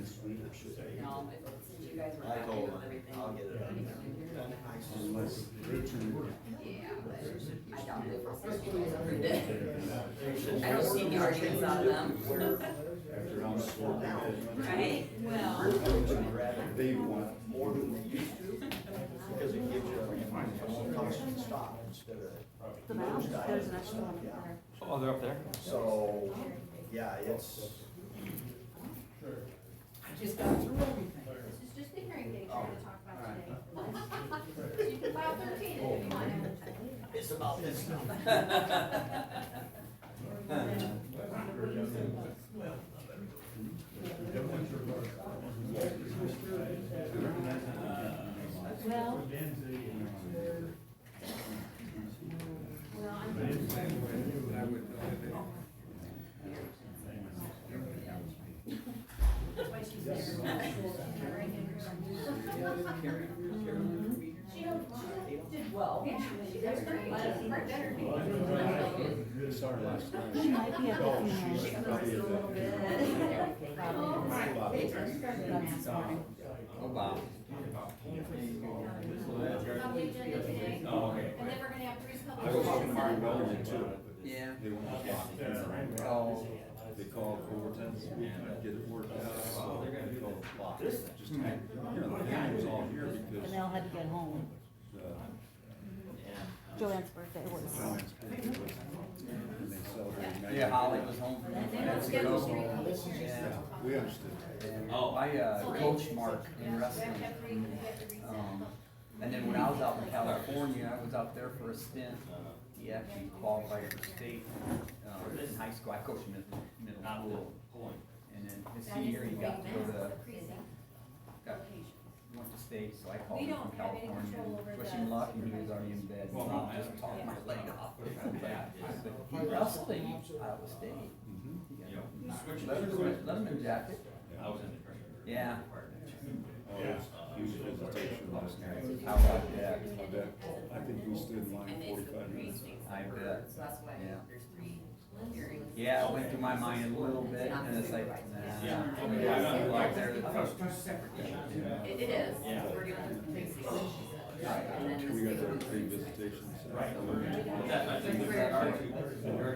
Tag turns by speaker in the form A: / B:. A: should I?
B: No, if, since you guys were
A: I
B: happy
A: told
B: with
A: him,
B: everything.
A: I'll get it
B: you
A: done.
B: know, you're gonna-
A: I just-
C: Unless Richard.
B: Yeah, but I doubt they will, since you guys approved it. I don't see any
A: Yeah.
B: arguments on them.
C: After I'm sworn in.
B: Right?
A: We're
B: Well.
A: going to grab
C: They want
A: more than we used to, because it gives you a more constant stop instead of,
D: The map, there's an extra one there.
E: Oh, they're up there?
A: so, yeah, it's,
B: I just got through everything.
F: This is just the hearing date we're gonna talk about today. You can file thirteen if you want.
A: it's about this now.
D: Well. Well, I'm.
B: That's why she's there.
D: Mm-hmm.
F: She don't, she don't.
B: Did well.
F: Yeah, she does great. She's her dinner.
C: Sorry, last night.
D: She might be at the
C: Oh,
D: funeral.
C: she's
D: She
C: probably
D: was
C: at
D: a little bit.
B: Everything.
D: Probably.
B: They just started on this morning.
E: Oh, wow.
F: On the agenda today.
E: Oh, okay.
F: And then we're gonna have three
C: I was talking to
F: public.
C: Mark Belden too.
E: Yeah.
C: They want to block it.
E: Oh.
C: They called Overton and get it worked out, so they're gonna go block it. Just, you know, the guy was all here because,
D: Janelle had to get home.
C: uh,
D: Joanne's birthday was.
C: John's birthday was, and they celebrated.
E: Yeah, Holly was home from
F: They don't
E: France.
F: schedule three public
C: Yeah,
F: hearings.
C: we understood.
E: Oh, I uh,
F: So they-
E: coached Mark in
F: We
E: wrestling.
F: have to have three, we have to reset the
E: Um,
F: public.
E: And then when I was out in California, I was out there for a stint. He actually qualified for state, uh, in high school. I coached mid- middle school. And then his
F: That is
E: senior,
F: the
E: he got to
F: way
E: go
F: that's the
E: to,
F: precinct
E: got,
F: location.
E: went to state, so I
F: We
E: called him
F: don't
E: from
F: have any
E: California.
F: control over
E: Wish
F: the
E: him luck, and he was already in bed.
G: Well, no,
E: I just
G: I-
E: talked my
F: yeah.
E: leg off. But He wrestled at Iowa State.
C: Mhm.
E: He got
G: Yeah.
E: Leatherman, Leatherman jacket.
G: I was in the pressure.
E: Yeah.
C: Oh, it was huge presentation last night.
E: How about that?
C: I bet, I think we stood in line
B: And it's the
C: forty-five minutes.
B: precinct.
E: I bet.
B: So that's why
E: Yeah.
B: there's three hearings.
E: Yeah, it went through my mind a little bit, and it's like, nah.
G: Yeah.
E: I mean, I don't like there, I thought it was two separate issues.
B: It, it is,
G: Yeah.
B: we're doing the precinct.
E: Right.
B: And then
C: We
B: the
C: got
B: state
C: our
B: one's
C: three
B: the precinct.
C: visitations.
G: Right.
B: But we're-
E: Our- our-